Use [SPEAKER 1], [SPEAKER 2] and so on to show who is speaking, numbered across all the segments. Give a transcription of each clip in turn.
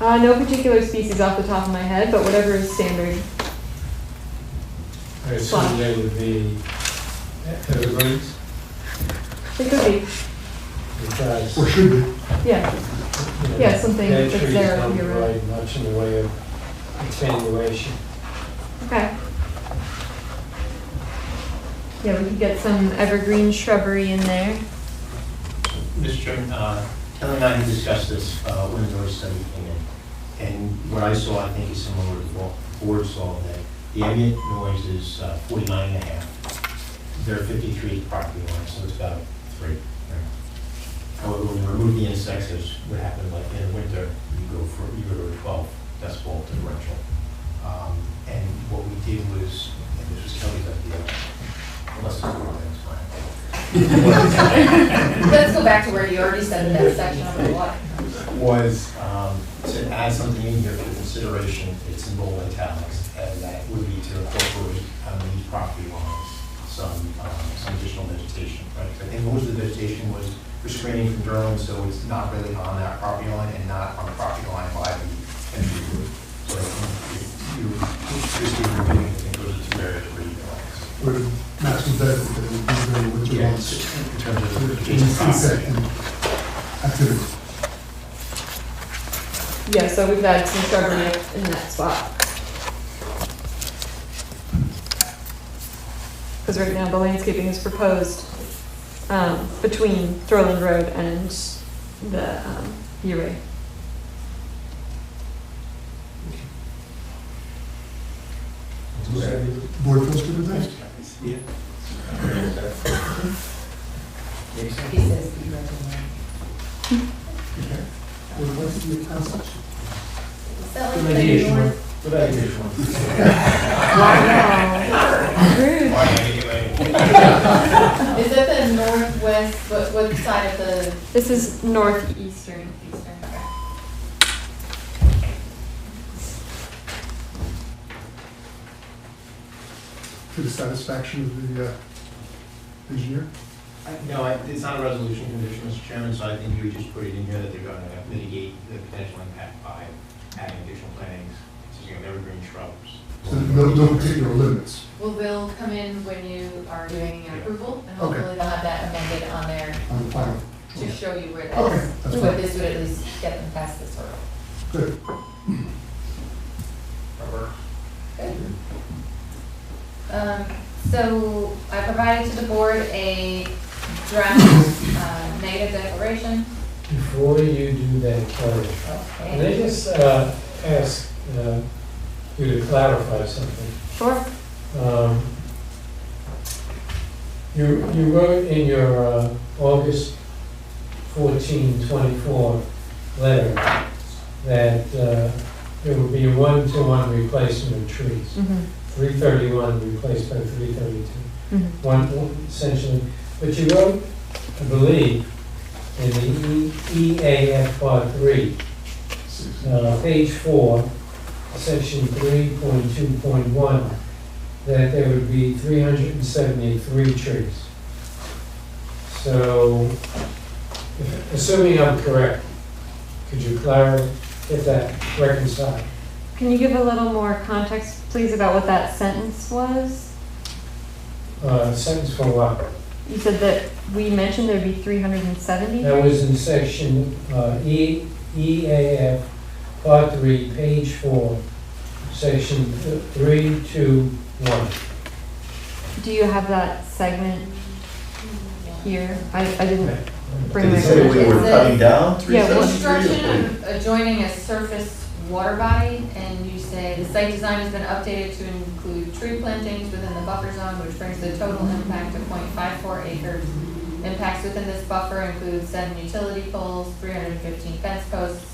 [SPEAKER 1] Uh, no particular species off the top of my head, but whatever is standard.
[SPEAKER 2] I assume they would be uh, evergreens,
[SPEAKER 1] It could be,
[SPEAKER 2] because.
[SPEAKER 3] Or should be.
[SPEAKER 1] yeah.
[SPEAKER 2] you know,
[SPEAKER 1] Yeah, something
[SPEAKER 2] Dead
[SPEAKER 1] that's
[SPEAKER 2] trees
[SPEAKER 1] there
[SPEAKER 2] don't
[SPEAKER 1] year round.
[SPEAKER 2] provide much in the way of attenuation.
[SPEAKER 1] Okay. Yeah, we could get some evergreen shrubbery in there.
[SPEAKER 4] Mr. Chairman, uh, Kelly and I had discussed this uh, when the notice study came in, and what I saw, I think, is similar to what the board saw, that the ambient noise is uh, 49 and a half. There are 53 property lines, so it's about three. However, when you remove the insects, there's what happened like in the winter, you go for, you go to a 12 decibel differential. Um, And what we did was, and this was Kelly's idea, unless it's wrong, that's fine.
[SPEAKER 5] Let's go back to where you already said that section of the law.
[SPEAKER 4] was um, to add something in here for consideration, it's in bold italics, and that would be to incorporate on these property lines, some, um, some additional vegetation, right? I think most of the vegetation was restraining from growing, so it's not really on that property line and not on the property line by the entry roof. So I think you, you, just keep repeating, I think those are two areas where you relax.
[SPEAKER 3] Or matching that with the very winter months.
[SPEAKER 4] In terms of the
[SPEAKER 3] Which
[SPEAKER 4] adjacent
[SPEAKER 3] is
[SPEAKER 4] property.
[SPEAKER 3] insect and activity.
[SPEAKER 1] Yeah, so we've got some shrubbery up in that spot. Because right now the landscaping is proposed um, between Thorland Road and the um, U-Ray.
[SPEAKER 3] Board feels good with that?
[SPEAKER 5] He says the original.
[SPEAKER 3] Okay. Well, what's the council?
[SPEAKER 5] Is that like the north?
[SPEAKER 2] Good idea, Sean.
[SPEAKER 1] Wow. Rude.
[SPEAKER 4] Why did I get my-
[SPEAKER 5] Is that the northwest, what, what side of the
[SPEAKER 1] This is northeastern.
[SPEAKER 5] eastern?
[SPEAKER 3] To the satisfaction of the uh, engineer?
[SPEAKER 4] No, I- it's not a resolution condition, Mr. Chairman, so I think you would just put it in here that they're going to mitigate the potential impact by adding additional plantings, such as evergreen shrubs.
[SPEAKER 3] So no, no particular limits.
[SPEAKER 5] Well, they'll come in when you are doing an approval, and
[SPEAKER 3] Okay.
[SPEAKER 5] hopefully they'll have that amended on there
[SPEAKER 3] on the final.
[SPEAKER 5] to show you where
[SPEAKER 3] Okay,
[SPEAKER 5] that's,
[SPEAKER 3] that's
[SPEAKER 5] what
[SPEAKER 3] fine.
[SPEAKER 5] this would at least get them past this hurdle.
[SPEAKER 3] Good.
[SPEAKER 4] Rubber.
[SPEAKER 5] Um, so I provided to the board a draft, uh, negative declaration.
[SPEAKER 2] Before you do that, Kelly, can I
[SPEAKER 5] Okay.
[SPEAKER 2] just uh, ask uh, you to clarify something?
[SPEAKER 1] Sure.
[SPEAKER 2] Um, You, you wrote in your uh, August 14, 24 letter that uh, there would be a one-to-one replacement of trees,
[SPEAKER 1] Mhm.
[SPEAKER 2] 331 replaced by 332,
[SPEAKER 1] Mhm.
[SPEAKER 2] one, essentially. But you wrote, I believe, in the E- EAF Part 3, uh, page four, section three point two point one, that there would be three hundred and seventy-three trees. So, if- assuming I'm correct, could you clarify, get that reconciled?
[SPEAKER 1] Can you give a little more context, please, about what that sentence was?
[SPEAKER 2] Uh, sentence for what?
[SPEAKER 1] You said that we mentioned there'd be 370?
[SPEAKER 2] That was in section, uh, E, EAF, part three, page four, section th- three, two, one.
[SPEAKER 1] Do you have that segment here? I, I didn't bring
[SPEAKER 6] Did
[SPEAKER 1] my.
[SPEAKER 6] it say we were
[SPEAKER 5] It's a-
[SPEAKER 6] cutting down
[SPEAKER 1] Yeah, well-
[SPEAKER 6] 373?
[SPEAKER 5] Construction of adjoining a surface water body, and you say the site design has been updated to include tree plantings within the buffer zone, which brings the total impact to 0.54 acres. Impacts within this buffer include seven utility poles, three hundred and fifteen fence posts,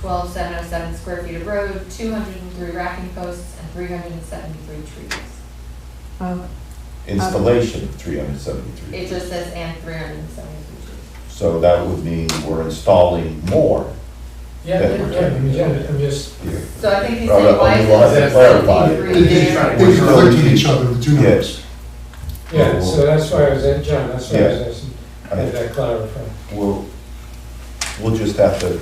[SPEAKER 5] twelve seven oh seven square feet of road, two hundred and three racking posts, and three hundred and seventy-three trees.
[SPEAKER 1] Oh,
[SPEAKER 6] Installation of 373.
[SPEAKER 5] It just says and three hundred and seventy-three trees.
[SPEAKER 6] So that would mean we're installing more.
[SPEAKER 2] Yeah,
[SPEAKER 6] Yeah.
[SPEAKER 2] yeah, I'm just- I'm just
[SPEAKER 6] here.
[SPEAKER 5] So I think he's
[SPEAKER 6] Well,
[SPEAKER 5] saying,
[SPEAKER 6] that
[SPEAKER 5] why
[SPEAKER 6] only
[SPEAKER 5] is
[SPEAKER 6] was
[SPEAKER 5] it
[SPEAKER 6] clarified.
[SPEAKER 5] seventy-three
[SPEAKER 3] They
[SPEAKER 5] there?
[SPEAKER 3] they conflict with each other, the two numbers.
[SPEAKER 6] Yes,
[SPEAKER 2] Yeah, so that's why I was at, John, that's why I was asking,
[SPEAKER 6] I mean,
[SPEAKER 2] if that clarified.
[SPEAKER 6] we'll, we'll just have to